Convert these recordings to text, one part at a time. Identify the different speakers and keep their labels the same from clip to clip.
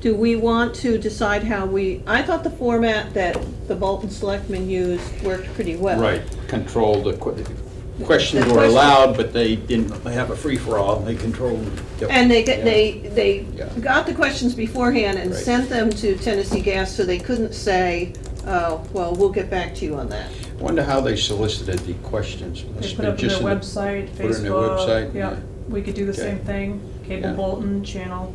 Speaker 1: Do we want to decide how we, I thought the format that the Bolton Selectmen used worked pretty well.
Speaker 2: Right, controlled, the que- questions
Speaker 1: The
Speaker 2: were
Speaker 1: question-
Speaker 2: allowed, but they didn't have a free-for-all, they controlled. the-
Speaker 1: And they, get- they, they
Speaker 2: Yeah.
Speaker 1: got the questions beforehand and
Speaker 2: Right.
Speaker 1: sent them to Tennessee Gas, so they couldn't say, oh, well, we'll get back to you on that.
Speaker 2: Wonder how they solicited the questions.
Speaker 3: They
Speaker 2: Must
Speaker 3: put
Speaker 2: be
Speaker 3: up on
Speaker 2: just
Speaker 3: their
Speaker 2: in the-
Speaker 3: website,
Speaker 2: put it on their
Speaker 3: Facebook,
Speaker 2: website,
Speaker 3: yeah, we could do the
Speaker 2: Okay.
Speaker 3: same thing,
Speaker 2: Yeah.
Speaker 3: cable bulletin, channel,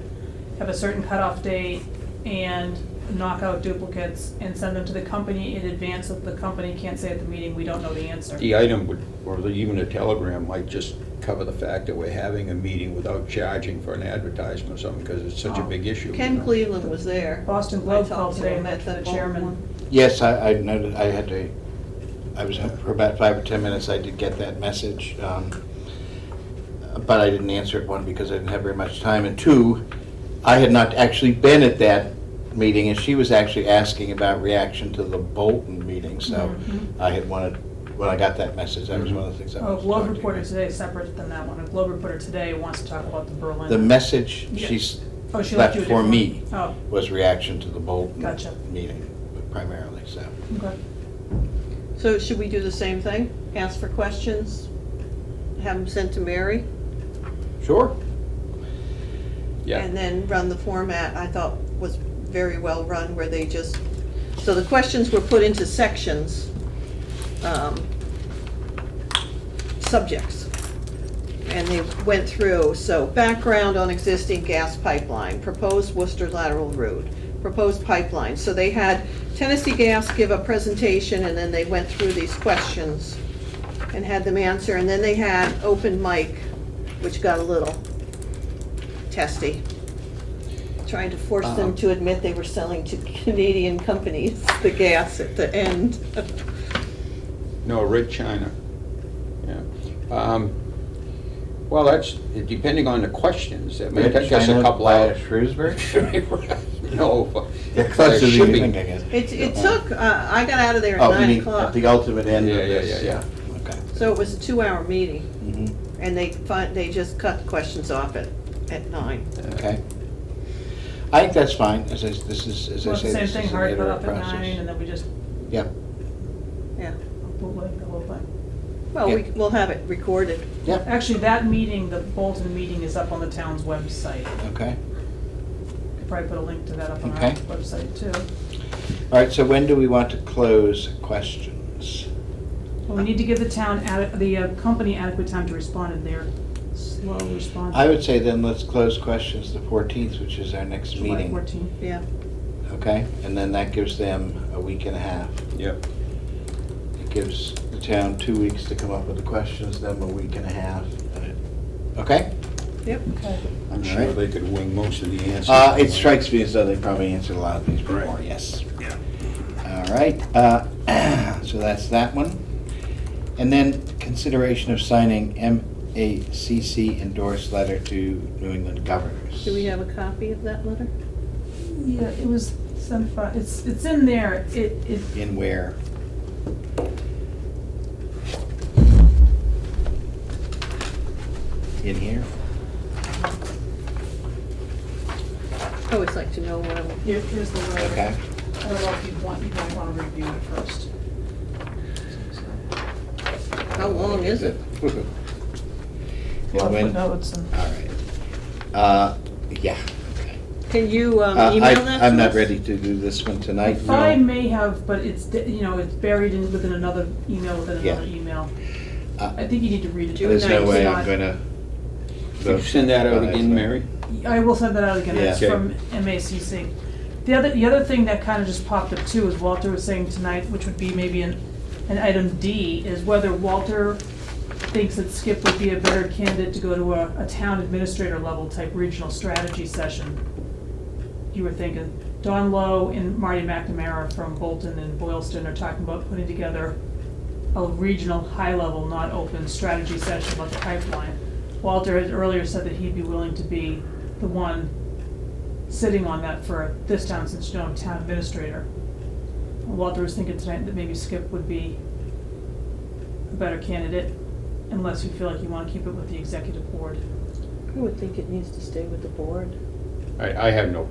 Speaker 3: have a certain cutoff date, and knock out duplicates, and send them to the company in advance, so the company can't say at the meeting, we don't know the answer.
Speaker 2: The item would, or the- even a telegram might just cover the fact that we're having a meeting without charging for an advertisement or something, because it's such a
Speaker 3: Oh.
Speaker 2: big issue. you
Speaker 1: Ken
Speaker 2: know.
Speaker 1: Cleveland was there.
Speaker 3: Boston
Speaker 1: I
Speaker 3: Globe
Speaker 1: talked
Speaker 3: called
Speaker 1: to
Speaker 3: today,
Speaker 1: him
Speaker 3: met
Speaker 1: at
Speaker 3: the
Speaker 1: the Bolton one.
Speaker 3: chairman.
Speaker 4: Yes, I, I noted, I had to, I was, for about five or 10 minutes, I did get that message. um, But I didn't answer it, one, because I didn't have very much time, and two, I had not actually been at that meeting, and she was actually asking about reaction to the Bolton meeting, so
Speaker 1: Mm-hmm.
Speaker 3: Mhm.
Speaker 4: I had wanted, when I got that message, that was one of the things I
Speaker 3: Oh,
Speaker 4: was
Speaker 3: Globe
Speaker 4: talking
Speaker 3: Reporter
Speaker 4: about.
Speaker 3: today is separate than that one, a Globe Reporter today wants to talk about the Berlin.
Speaker 4: The message
Speaker 3: Yeah.
Speaker 4: she's
Speaker 3: Oh, she
Speaker 4: left
Speaker 3: left you a
Speaker 4: for
Speaker 3: different-
Speaker 4: me
Speaker 3: Oh,
Speaker 4: was reaction to the Bolton
Speaker 3: Gotcha.
Speaker 4: meeting primarily, so.
Speaker 3: Oh, okay.
Speaker 1: So should we do the same thing? Ask for questions, have them sent to Mary?
Speaker 4: Sure.
Speaker 2: Yeah,
Speaker 1: And then run the format, I thought was very well run, where they just, so the questions were put into sections, um, subjects. And they went through, so background on existing gas pipeline, proposed Worcester lateral route, proposed pipeline. So they had Tennessee Gas give a presentation, and then they went through these questions and had them answer. And then they had open mic, which got a little testy, trying to force them
Speaker 2: Um.
Speaker 4: Uh-huh.
Speaker 1: to admit they were selling to Canadian companies the gas at the end.
Speaker 2: no, Red China, yeah. Um, Well, that's, depending on the questions, I mean, I guess a couple
Speaker 4: China,
Speaker 2: hours.
Speaker 4: Shrewsbury?
Speaker 2: No,
Speaker 4: Yeah,
Speaker 2: plus
Speaker 4: close to
Speaker 2: the
Speaker 4: the
Speaker 2: shipping.
Speaker 4: evening, I guess.
Speaker 1: It, it
Speaker 2: Yeah.
Speaker 1: took, uh, I got out of there at
Speaker 4: Uh-huh. Oh, you
Speaker 1: nine
Speaker 4: mean at
Speaker 1: o'clock,
Speaker 4: the ultimate end of
Speaker 2: Yeah, yeah,
Speaker 4: this,
Speaker 2: yeah,
Speaker 4: yeah. Okay.
Speaker 1: so it was a two-hour meeting,
Speaker 3: Mm-hmm.
Speaker 4: Mhm.
Speaker 1: and they fin, they just cut the questions off at, at nine.
Speaker 4: Okay. I think that's fine, as I, s- this is, as I
Speaker 3: Well, it's
Speaker 4: say,
Speaker 3: the same
Speaker 4: this
Speaker 3: thing,
Speaker 4: is an
Speaker 3: hard put
Speaker 4: iterative
Speaker 3: up at nine,
Speaker 4: process.
Speaker 3: and then we just
Speaker 4: Yeah,
Speaker 1: Yeah,
Speaker 3: bootleg the whole thing.
Speaker 1: well, we,
Speaker 4: Yeah.
Speaker 1: we'll have it recorded.
Speaker 4: yeah,
Speaker 3: Actually, that meeting, the Bolton meeting is up on the town's website.
Speaker 4: okay.
Speaker 3: Could Probably put a link to that up on our
Speaker 4: Okay.
Speaker 3: website too.
Speaker 4: All right, so when do we want to close questions?
Speaker 3: Well, we need to give the town, ade- the uh, company adequate time to respond and they're slow responding.
Speaker 4: I would say then let's close questions the fourteenth, which is our next
Speaker 3: July
Speaker 4: meeting,
Speaker 3: fourteenth.
Speaker 1: Yeah,
Speaker 4: okay? And then that gives them a week and a half.
Speaker 2: Yep.
Speaker 4: It gives the town two weeks to come up with the questions, then a week and a half, and it- okay?
Speaker 1: yep.
Speaker 3: Okay.
Speaker 2: I'm
Speaker 4: All
Speaker 2: sure
Speaker 4: right.
Speaker 2: they could wing most of the answers.
Speaker 4: Uh, it strikes me as though they probably answered a lot of these before,
Speaker 2: Right.
Speaker 4: yes.
Speaker 2: Yeah.
Speaker 4: All right, uh, so that's that one. And then consideration of signing MACC endorsed letter to New England governors.
Speaker 1: Do we have a copy of that letter?
Speaker 3: Yeah, it was sent by, it's, it's in there. It, it,
Speaker 4: In where? In here?
Speaker 1: I always like to know what I'm,
Speaker 3: here- here's the
Speaker 1: Uh,
Speaker 3: letter.
Speaker 4: Okay.
Speaker 3: I don't know if you want, you might want to review it first.
Speaker 1: how long is it?
Speaker 3: I'll
Speaker 4: And
Speaker 3: put
Speaker 4: when- all
Speaker 3: notes and-
Speaker 4: right. Uh, yeah, okay.
Speaker 1: Can you um,
Speaker 4: Uh,
Speaker 1: email that to us?
Speaker 4: I- I'm not ready to do this one
Speaker 3: I
Speaker 4: tonight.
Speaker 3: thought I
Speaker 4: no.
Speaker 3: may have, but it's, di- you know, it's buried in, within another email, within
Speaker 4: Yeah.
Speaker 3: another email.
Speaker 4: Uh,
Speaker 3: I think you need to read it.
Speaker 1: Do
Speaker 4: There's no
Speaker 1: nice.
Speaker 4: way I'm
Speaker 3: Not-
Speaker 4: gonna.
Speaker 2: Could you send that out
Speaker 4: Uh,
Speaker 2: again, Mary?
Speaker 3: I will send that out again, that's
Speaker 2: Yeah.
Speaker 3: from MACC. The other, the other thing that kind of just popped up too is Walter was saying tonight, which would be maybe an, an item D, is whether Walter thinks that Skip would be a better candidate to go to a, a town administrator level type regional strategy session. You were thinking, Don Lowe and Marty McNamara from Bolton and Boylston are talking about putting together a regional, high-level, not open strategy session about the pipeline. Walter had earlier said that he'd be willing to be the one sitting on that for this town, since you know, I'm town administrator. Walter was thinking tonight that maybe Skip would be a better candidate, unless you feel like you wanna keep it with the executive board.
Speaker 1: I would think it needs to stay with the board.
Speaker 2: I, I have no